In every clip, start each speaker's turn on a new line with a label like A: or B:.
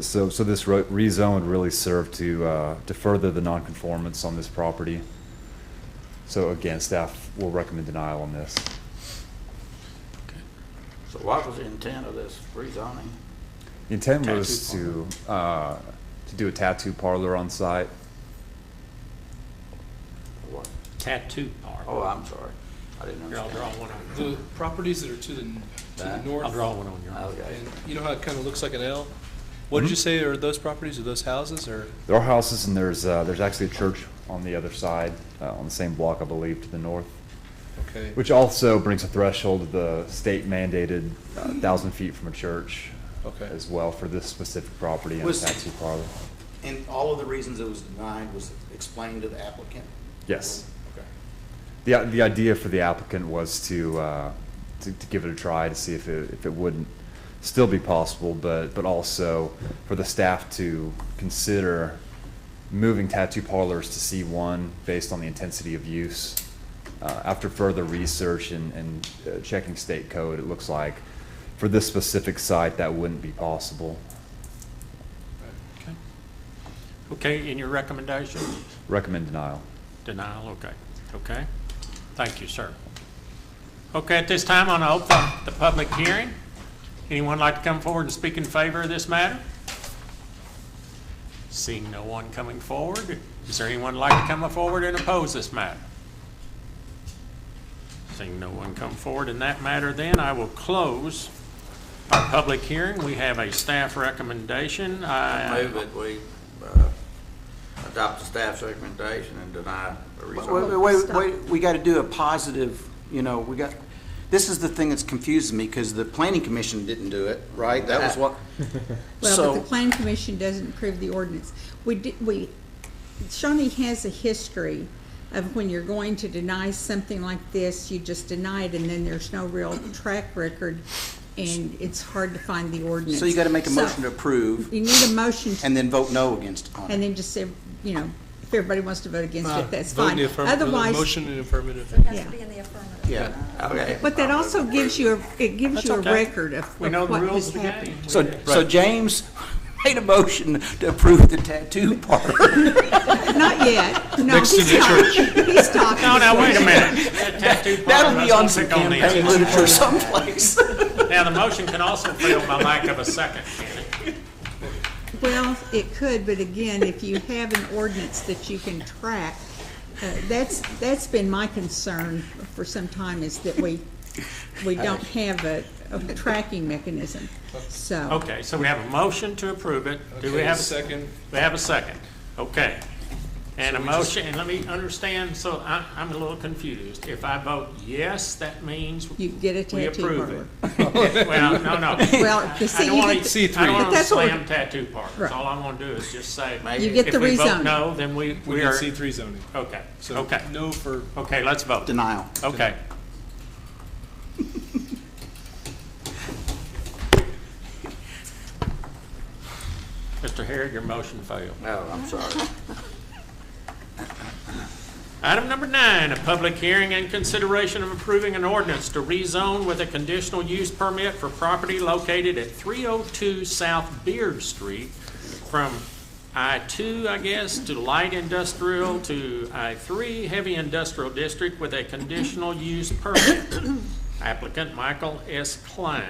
A: so, so this ro- rezone would really serve to, uh, to further the nonconformance on this property. So again, staff will recommend denial on this.
B: So what was the intent of this rezoning?
A: The intent
B: Tattoo
A: was to, uh, to do a tattoo parlor on site.
B: What?
C: tattoo
B: Oh,
C: parlor.
B: I'm sorry. I didn't
C: Here, I'll draw
B: understand.
C: one on
D: The properties that are to the, to the
B: Back.
C: you.
D: north.
C: I'll draw one on you.
B: Okay.
D: And you know how it kind of looks like an L? What
C: Mm-hmm.
D: did you say are those properties, are those houses, or?
A: There are houses and there's, uh, there's actually a church on the other side, uh, on the same block, I believe, to the north.
D: Okay.
A: Which also brings a threshold of the state mandated uh, thousand feet from a church.
D: Okay.
A: As well for this specific property and a
E: Was-
A: tattoo parlor.
E: And all of the reasons it was denied was explained to the applicant?
A: Yes.
E: Okay.
A: The, i- the idea for the applicant was to, uh, to, to give it a try to see if it, if it wouldn't still be possible, but, but also for the staff to consider moving tattoo parlors to C1 based on the intensity of use. Uh, after further research and, and uh, checking state code, it looks like for this specific site, that wouldn't be possible.
C: Okay. Okay, and your recommendation?
A: Recommend denial.
C: Denial, okay. Okay. Thank you, sir. Okay, at this time, I'm going to open the public hearing. Anyone like to come forward and speak in favor of this matter? Seeing no one coming forward, is there anyone like to come forward and oppose this matter? Seeing no one come forward in that matter, then I will close our public hearing. We have a staff recommendation.
B: I
C: I-
B: move that we uh, adopt the staff's recommendation and deny the
E: Wait,
B: rezoning.
E: wait, wait, we got to do a positive, you know, we got, this is the thing that's confusing me, because the planning commission didn't do it, right? That was what,
F: Well, but the
E: so,
F: planning commission doesn't approve the ordinance. We did, we, Shawnee has a history of when you're going to deny something like this, you just deny it, and then there's no real track record, and it's hard to find the ordinance.
E: so you got to make a motion to
F: So,
E: approve,
F: You need a motion, to-
E: and then vote no against on
F: and
E: it.
F: then just say, you know, if everybody wants to vote against
D: Uh,
F: it, that's
D: vote in
F: fine.
D: the affirm-
F: Otherwise,
D: Motion in affirmative.
G: It has
F: Yeah.
G: to be in the affirmative.
E: Yeah.
B: Okay.
F: but that also gives you, a it gives
C: That's
F: you a
C: okay.
F: record of
C: We
F: of
C: know the
F: what
C: rules
F: has
C: of the
F: happened.
C: game.
E: So, so James made a motion to approve the tattoo part.
F: Not yet, no,
D: Next to
F: he's
D: the
F: talking, he's talking.
C: No, now, wait a minute. That tattoo parlor,
E: That'll
C: let's
E: be on
C: not
E: some
C: pick on the-
E: campaign literature someplace.
C: Now, the motion can also fail by lack of a second, can it?
F: Well, it could, but again, if you have an ordinance that you can track, uh, that's, that's been my concern for some time is that we, we don't have a, a tracking mechanism, so.
C: Okay, so we have a motion to approve it. Do we
D: Okay,
C: have a second?
D: Second,
C: We have a second. Okay. And a motion, and let me understand, so I, I'm a little confused. If I vote yes, that means
F: You get a
C: we
F: tattoo parlor.
C: approve it. Well, no, no.
F: Well, you
C: I
F: see,
C: don't
F: you
C: want
F: get, the-
C: to, I don't
F: But
C: want to
F: that's what we-
C: slam tattoo parlors.
F: Right.
C: All I want to do is just say,
B: Maybe
F: you get
C: if
F: the
C: we vote
F: rezoning.
C: no, then we,
D: we
C: we
D: did
C: are,
D: C three zoning.
C: okay,
D: So
C: okay,
D: no for,
C: okay, let's vote.
E: Denial.
C: Okay. Mr. Harrod, your motion failed.
B: No, Oh, I'm sorry.
C: Item number nine, a public hearing and consideration of approving an ordinance to rezone with a conditional use permit for property located at 302 South Beard Street from I-2, I guess, to light industrial to I-3 heavy industrial district with a conditional use permit. Applicant Michael S. Klein.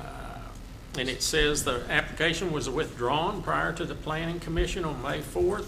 C: Uh, And it says the application was withdrawn prior to the planning commission on May 4th.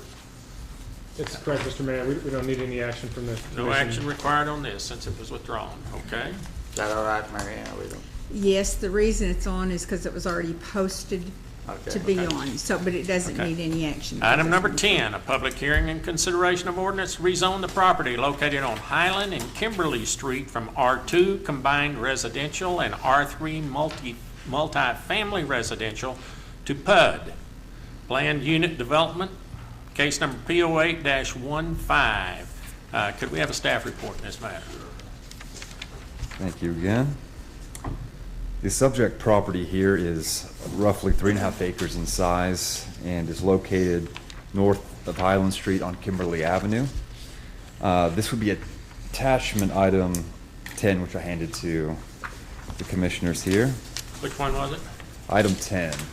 H: That's correct, Mr. Mayor. We, we don't need any action from the commission.
C: No action required on this since it was withdrawn, okay?
B: Is that all right, Mary Ann? We don't-
F: yes, the reason it's on is because it was already posted
B: Okay.
F: to be on, so, but it doesn't
C: Okay.
F: need any action.
C: Item number 10, a public hearing and consideration of ordinance to rezone the property located on Highland and Kimberly Street from R2 Combined Residential and R3 Multi, Multi-Family Residential to PUD, Planned Unit Development, case number PO8-15. Uh, Could we have a staff report in this matter?
A: Thank you again. The subject property here is roughly three and a half acres in size and is located north of Highland Street on Kimberly Avenue. Uh, This would be attachment item 10, which I handed to the commissioners here.
C: Which one was it?
A: Item 10.